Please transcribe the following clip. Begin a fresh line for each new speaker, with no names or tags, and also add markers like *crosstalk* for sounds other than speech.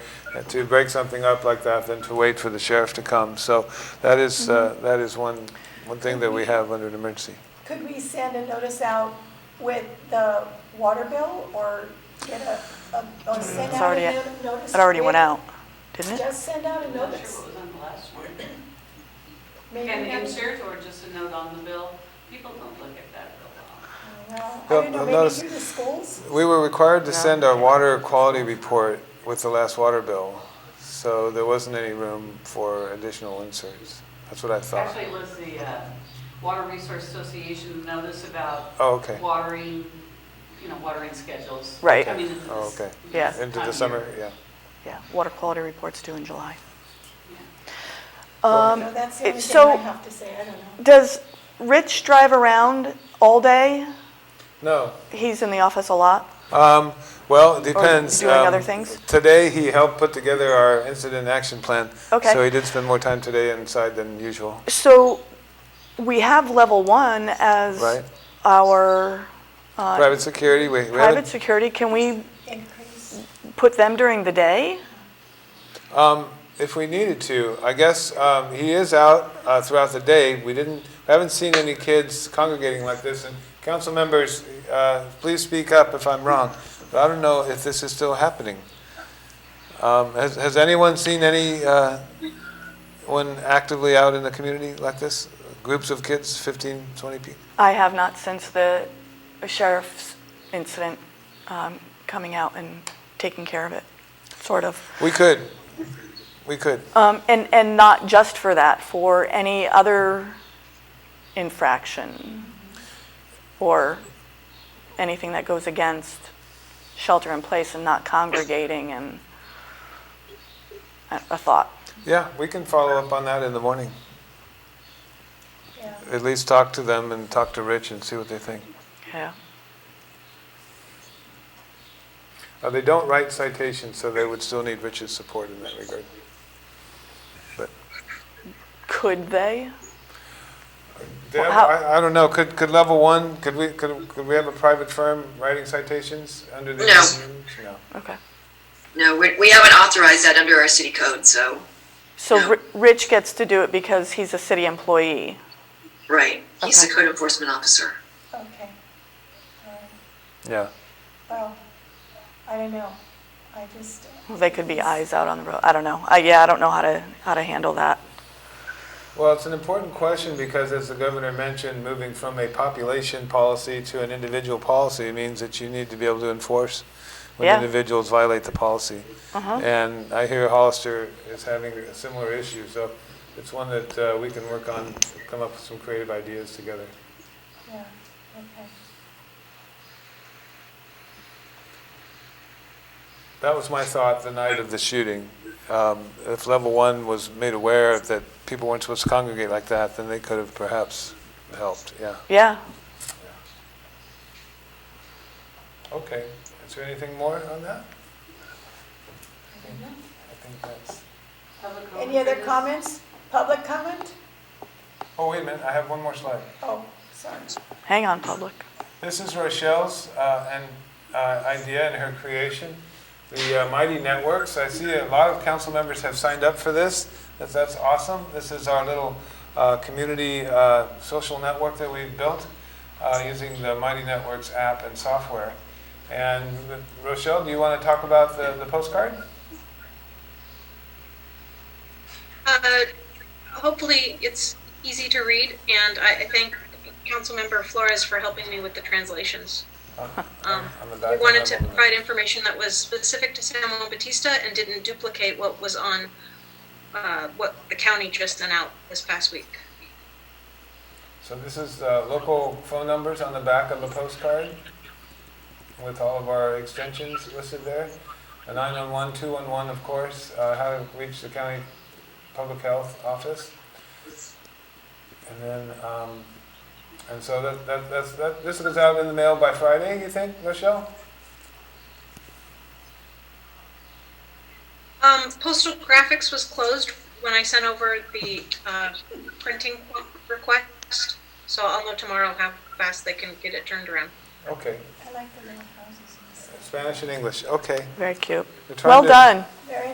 And to break something up like that than to wait for the sheriff to come. So that is, uh, that is one, one thing that we have under an emergency.
Could we send a notice out with the water bill or get a, a, or send
Mm, It's
out
already-
a no- notice?
It already went
with-
out, didn't it?
Just send out a
I'm not sure
notice.
what was on the last one.
Maybe
An
have-
insert or just a note on the bill? People don't look at that real well.
Bill,
Well, I don't
a
know, maybe
notice-
through the schools?
We were required to
No.
send our water quality report with the last water bill, so there wasn't any room for additional inserts. That's what I thought.
Actually, it was the uh, Water Resource Association notice about
Oh, okay.
watering, you know, watering schedules.
Right.
coming into
Oh,
this-
okay.
Yeah.
Into
time
the
of
summer,
year.
yeah.
Yeah, water quality report's due in July.
No,
Um,
that's the only
it-
thing I
so-
have to say, I don't know.
Does Rich drive around all day?
No,
He's in the office a lot.
Um, Well, it depends.
doing
Um,
other things?
Today, he helped put together our incident action plan.
Okay.
So he did spend more time today inside than usual.
So we have level one
Right.
as our uh,
Private security, we, we had
private security. Can we
Increase.
put them during the day?
a- um, if we needed to, I guess, um, he is out uh, throughout the day. We didn't, we haven't seen any kids congregating like this. And council members, uh, please speak up if I'm wrong, but I don't know if this is still happening. Um, Has, has anyone seen any, uh, one actively out in the community like this? Groups of kids, 15, 20 people?
I have not since the sheriff's incident um, coming out and taking care of it, sort of.
We could. We could.
Um, and, and not just for that, for any other infraction or anything that goes against shelter in place and not congregating and a, a thought.
Yeah, we can follow up on that in the morning.
Yeah.
At least talk to them and talk to Rich and see what they think.
Yeah.
Uh, they don't write citations, so they would still need Rich's support in that regard. But
Could they?
Deb,
how-
I, I don't know. Could could level one? Could we could, could we have a private firm writing citations under the
No.
no.
Okay.
No, we, we haven't authorized that under our city code, so,
So
No.
Ri- Rich gets to do it because he's a city employee.
right. He's the
Okay.
code enforcement officer.
Okay. All right.
Yeah.
Well, I don't know. I just,
They could be eyes out on the road. I don't know. I, yeah, I don't know how to how to handle that.
Well, it's an important question because, as the governor mentioned, moving from a population policy to an individual policy means that you need to be able to enforce when
Yeah.
individuals violate the policy.
Uh-huh.
And I hear Hollister is having a similar issue, so it's one that uh, we can work on, come up with some creative ideas together.
yeah, okay.
That was my thought the night of the shooting. Um, If level one was made aware that people weren't supposed to congregate like that, then they could have perhaps helped, yeah.
Yeah.
Okay, is there anything more on that? I think that's,
Public
Any other
comment?
comments? Public comment?
oh, wait a minute, I have one more slide.
Oh, sorry.
Hang on, public.
This is Rochelle's uh, and uh, idea and her creation, the uh, Mighty Networks. I see a lot of council members have signed up for this. That's, that's awesome. This is our little uh, community uh, social network that we've built uh, using the Mighty Networks app and software. And Rochelle, do you want to talk about the, the
*laughs*
postcard?
Uh, Hopefully, it's easy to read, and I I thank Councilmember Flores for helping me with the translations. Um,
I'm a
We wanted
document
to
owner.
provide information that was specific to San Juan Batista and didn't duplicate what was on, uh, what the county just sent out this past week.
So this is uh, local phone numbers on the back of the postcard with all of our extensions listed there. A 911, 211, of course, uh, how to reach the county public health office. And then, um, and so that, that, that's, that, this goes out in the mail by Friday, you think, Rochelle?
Um, Postal graphics was closed when I sent over the uh, printing request, so I'll know tomorrow how fast they can get it turned around.
Okay,
I like the little houses. in the city.
Spanish and English, okay.
Very cute.
We're trying
Well
to-
done.
Very